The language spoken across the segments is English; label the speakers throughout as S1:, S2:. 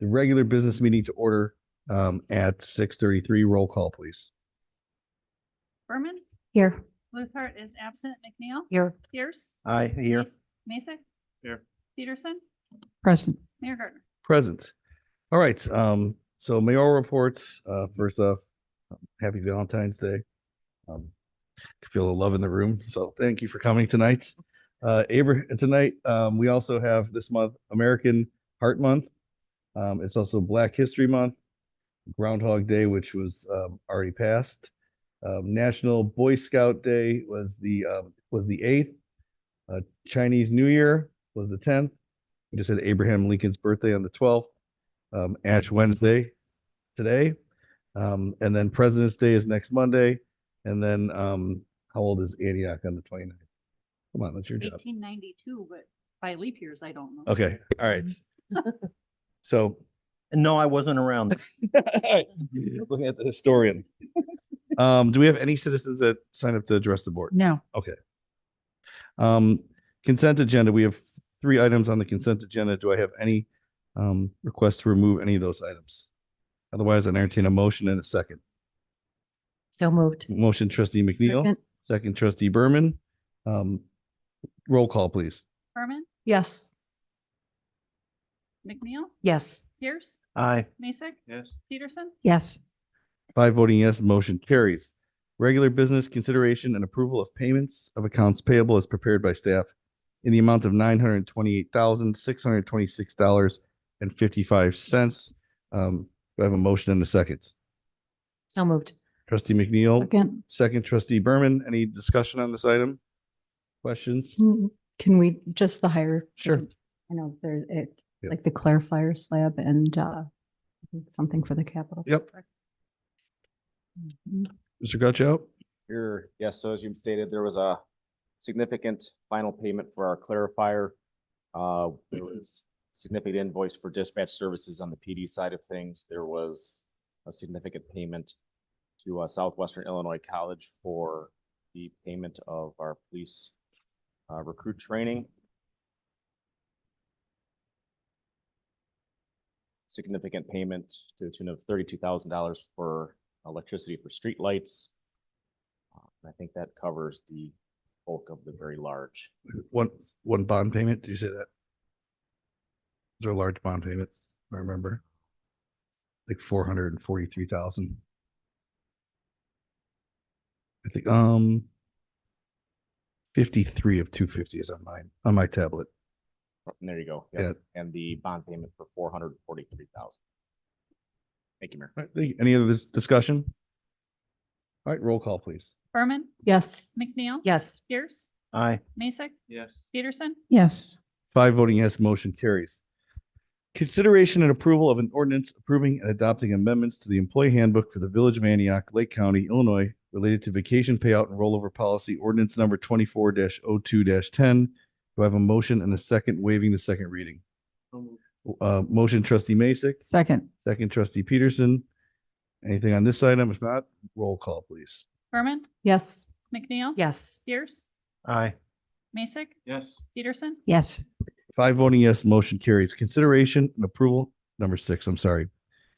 S1: the regular business meeting to order um, at six thirty-three. Roll call, please.
S2: Berman,
S3: Here.
S2: Luthart is absent, McNeil,
S3: Here.
S2: Pierce,
S1: Aye, here.
S2: Mason.
S4: Here.
S2: Peterson,
S3: Present.
S2: Mayor Gardner.
S1: Present. All right, um, so mayoral reports, uh, first off, happy Valentine's Day. Um, can Feel the love in the room, so thank you for coming tonight. Uh, Abra, tonight, um, we also have this month American Heart Month. Um, it's also Black History Month, Groundhog Day, which was, um, already passed. Um, National Boy Scout Day was the, um, was the eighth. Uh, Chinese New Year was the tenth. We just had Abraham Lincoln's birthday on the twelfth, um, Ash Wednesday today. Um, and then President's Day is next Monday. And then, um, how old is Antioch on the 29th? Come on, that's your job.
S2: Eighteen ninety-two, but by leap years, I don't know.
S1: Okay, all right. So
S4: No, I wasn't around.
S1: looking at the historian. Um, do we have any citizens that sign up to address the board?
S3: No.
S1: Um, consent agenda, we have three items on the consent agenda. Do I have any um requests to remove any of those items? Otherwise, I entertain a motion and a second.
S3: So moved.
S1: Motion trustee McNeil,
S3: Second.
S1: second trustee Berman. Um, roll call, please.
S2: Berman,
S3: Yes.
S2: McNeil,
S3: Yes.
S2: Pierce,
S4: Aye.
S2: Mason,
S4: Yes.
S2: Peterson,
S3: Yes.
S1: Five voting yes, motion carries. Regular business consideration and approval of payments of accounts payable as prepared by staff in the amount of nine hundred twenty-eight thousand, six hundred twenty-six dollars and fifty-five cents. Um, do I have a motion and a second?
S3: So moved.
S1: Trustee McNeil,
S3: Second.
S1: second trustee Berman, any discussion on this item? Questions?
S3: Hmm. Can we, just the higher?
S1: Sure.
S3: I know there's it,
S1: Yep.
S3: like the clarifier slab and uh something for the capital.
S1: Yep.
S3: Mhm.
S1: Mr. Gutchout?
S5: Here, yes, so as you stated, there was a significant final payment for our clarifier. Uh, there was significant invoice for dispatch services on the PD side of things. There was a significant payment to uh, Southwestern Illinois College for the payment of our police uh, recruit training. Significant payment to the tune of thirty-two thousand dollars for electricity for streetlights. Uh, I think that covers the bulk of the very large.
S1: One, one bond payment, did you say that? Is there a large bond payment? I remember. Like four hundred and forty-three thousand. I think, um, fifty-three of two fifty is on mine, on my tablet.
S5: And there you go.
S1: Yeah.
S5: Yep. And the bond payment for four hundred and forty-three thousand. Thank you, Mayor.
S1: All right, thank you. Any other dis- discussion? All right, roll call, please.
S2: Berman,
S3: Yes.
S2: McNeil.
S3: Yes.
S2: Pierce,
S4: Aye.
S2: Mason,
S4: Yes.
S2: Peterson,
S3: Yes.
S1: Five voting yes, motion carries. Consideration and approval of an ordinance approving and adopting amendments to the employee handbook for the Village of Antioch, Lake County, Illinois, related to vacation payout and rollover policy ordinance number twenty-four 2 ten. Do I have a motion and a second waiving the second reading? Uh, motion trustee Masek,
S3: Second.
S1: second trustee Peterson. Anything on this item? If not, roll call, please.
S2: Berman,
S3: Yes.
S2: McNeil.
S3: Yes.
S2: Pierce,
S4: Aye.
S2: Mason,
S4: Yes.
S2: Peterson,
S3: Yes.
S1: Five voting yes, motion carries. Consideration and approval, number six, I'm sorry.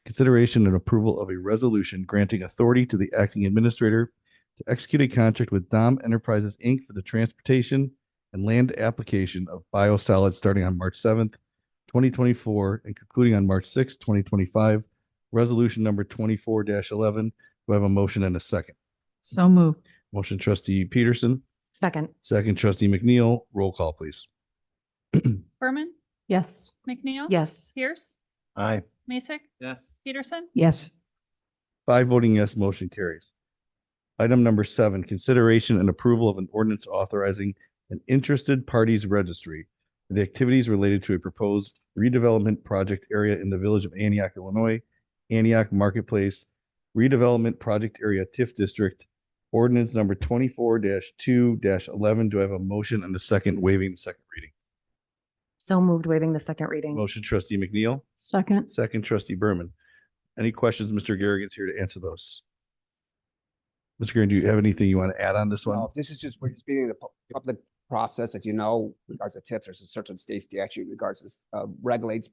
S1: Consideration and approval of a resolution granting authority to the acting administrator to execute a contract with Dom Enterprises, Inc. for the transportation and land application of biosolids starting on March seventh, twenty twenty-four and concluding on March sixth, twenty twenty-five. Resolution number twenty-four eleven. Do I have a motion and a second?
S3: So moved.
S1: Motion trustee Peterson,
S3: Second.
S1: second trustee McNeil. Roll call, please.
S2: Berman,
S3: Yes.
S2: McNeil.
S3: Yes.
S2: Pierce,
S4: Aye.
S2: Mason,
S4: Yes.
S2: Peterson,
S3: Yes.
S1: Five voting yes, motion carries. Item number seven, consideration and approval of an ordinance authorizing an interested parties registry for the activities related to a proposed redevelopment project area in the village of Antioch, Illinois, Antioch Marketplace Redevelopment Project Area TIF District, ordinance number twenty-four two eleven. Do I have a motion and a second waiving the second reading?
S3: So moved, waiving the second reading.
S1: Motion trustee McNeil,
S3: Second.
S1: second trustee Berman. Any questions? Mr. Garrigan's here to answer those. Mr. Garrigan, do you have anything you want to add on this one?
S6: No, this is just, we're just beginning the pu- public process, as you know, regards to TIF, there's a certain state statute regards this, uh, regulates